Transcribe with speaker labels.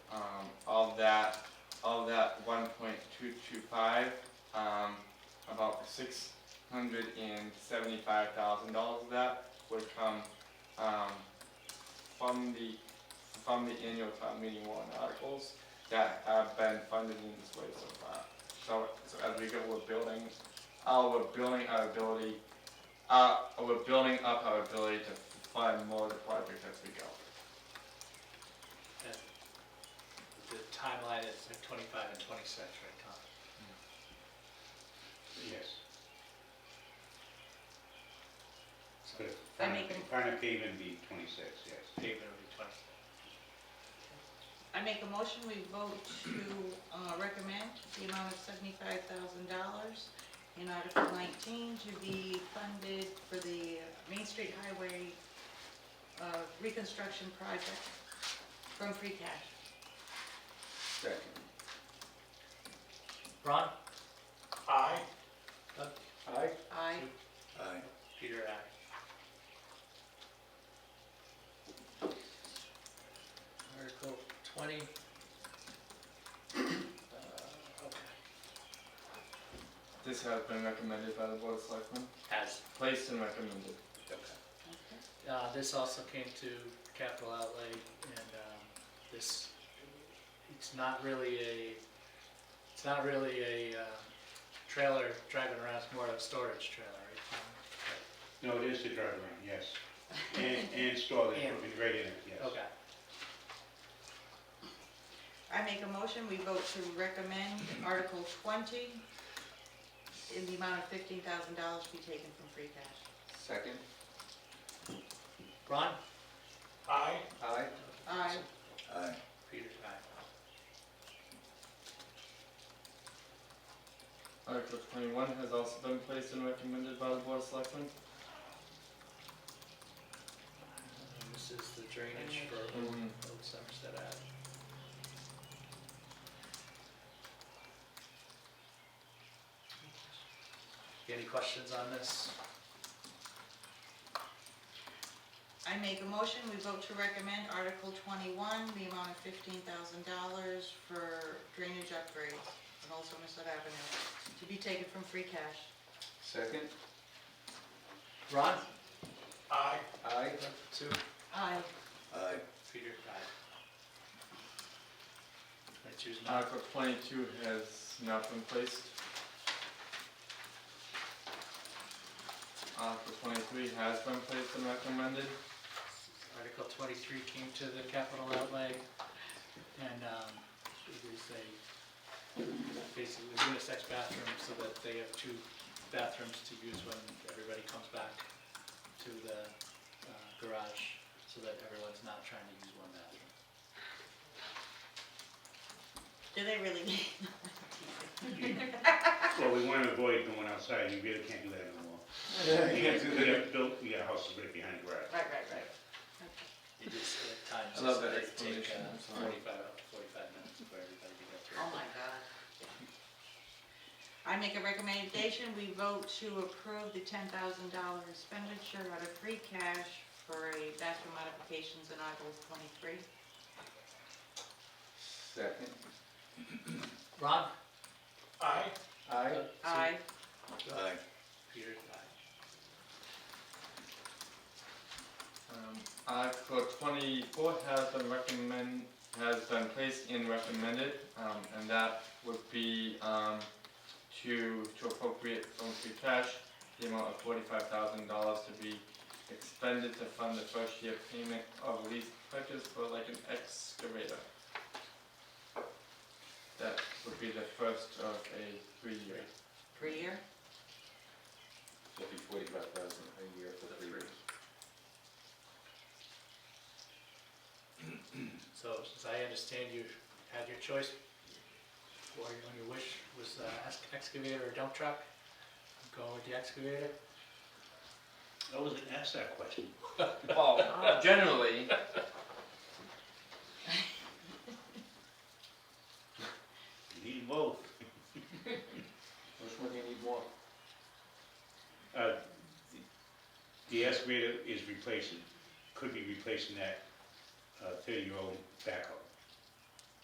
Speaker 1: Um, five, um, about six hundred and seventy-five thousand dollars of that would come, um, from the, from the annual town meeting warrant articles that have been funded in this way so far. So, so as we go, we're building, uh, we're building our ability, uh, we're building up our ability to fund more of the projects as we go.
Speaker 2: And The timeline is at 25 and 26, right, Tom?
Speaker 3: Yes.
Speaker 2: So
Speaker 3: But if
Speaker 4: I
Speaker 3: front of-
Speaker 4: make a-
Speaker 3: front of pavement be twenty-six, yes.
Speaker 2: pavement will be 20.
Speaker 4: I make a motion, we vote to uh, recommend the amount of seventy-five thousand dollars in Article nineteen to be funded for the Main Street Highway uh, reconstruction project from free cash.
Speaker 1: Second.
Speaker 2: Ron? Aye.
Speaker 1: Aye.
Speaker 4: Aye.
Speaker 5: Aye.
Speaker 2: Peter, aye. Article 20. Uh, okay.
Speaker 1: This has been recommended by the Board of Selectmen,
Speaker 2: As,
Speaker 1: placed and recommended.
Speaker 2: okay. Uh, this also came to capital outlay and, um, this, it's not really a, it's not really a, um, trailer driving around, it's more of a storage trailer, right? Tom?
Speaker 3: No, it is the drive around, yes. And, and store the
Speaker 2: And-
Speaker 3: equipment right in it, yes.
Speaker 2: Okay,
Speaker 4: I make a motion, we vote to recommend Article twenty in the amount of fifteen thousand dollars to be taken from free cash.
Speaker 1: Second.
Speaker 2: Ron? Aye.
Speaker 1: Aye.
Speaker 4: Aye.
Speaker 5: Aye.
Speaker 2: Peter, aye.
Speaker 1: Article twenty-one has also been placed and recommended by the Board of Selectmen.
Speaker 2: And This is the drainage for Old
Speaker 1: Mhm.
Speaker 2: Old Somerset Ave. Any questions on this?
Speaker 4: I make a motion, we vote to recommend Article twenty-one, the amount of fifteen thousand dollars for drainage upgrades on Old Somerset Avenue, to be taken from free cash.
Speaker 1: Second.
Speaker 2: Ron? Aye.
Speaker 1: Aye.
Speaker 2: Sue?
Speaker 4: Aye.
Speaker 5: Aye.
Speaker 2: Peter, aye. I choose not.
Speaker 1: Article twenty-two has not been placed. Article twenty-three has been placed and recommended.
Speaker 2: Article twenty-three came to the capital outlay, and, um, it is a, basically unisex bathroom, so that they have two bathrooms to use when everybody comes back to the uh, garage, so that everyone's not trying to use one bathroom.
Speaker 4: Do they really need?
Speaker 3: Well, we want to avoid going outside, you really can't do that anymore. You gotta, do- you gotta build, you got a house right behind the garage.
Speaker 4: Right, right, right.
Speaker 2: It just, at
Speaker 1: I
Speaker 2: times,
Speaker 1: love that
Speaker 2: it's- they take
Speaker 1: explanation,
Speaker 2: uh,
Speaker 1: I'm sorry.
Speaker 2: forty-five, up to forty-five minutes for everybody to get through.
Speaker 4: Oh, my God. I make a recommendation, we vote to approve the ten thousand dollar expenditure out of free cash for a bathroom modifications in Article twenty-three.
Speaker 1: Second.
Speaker 2: Ron? Aye.
Speaker 1: Aye.
Speaker 4: Aye.
Speaker 5: Aye.
Speaker 2: Peter, aye.
Speaker 1: Um, Article twenty-four has been recommend, has been placed in recommended, um, and that would be, um, to, to appropriate from free cash, the amount of forty-five thousand dollars to be expended to fund the first year payment of lease purchase for like an excavator. That would be the first of a three-year.
Speaker 4: Per year?
Speaker 6: It'll be forty-five thousand a year for three years.
Speaker 2: So, as I understand, you had your choice, or your- your wish was uh, ex- excavator or dump truck. I'm Going with the excavator.
Speaker 3: I wasn't asked that question.
Speaker 1: Well, generally,
Speaker 3: You need both.
Speaker 6: Which one do you need more?
Speaker 3: Uh, the- The excavator is replacing, could be replacing that uh, thirty-year-old backhoe.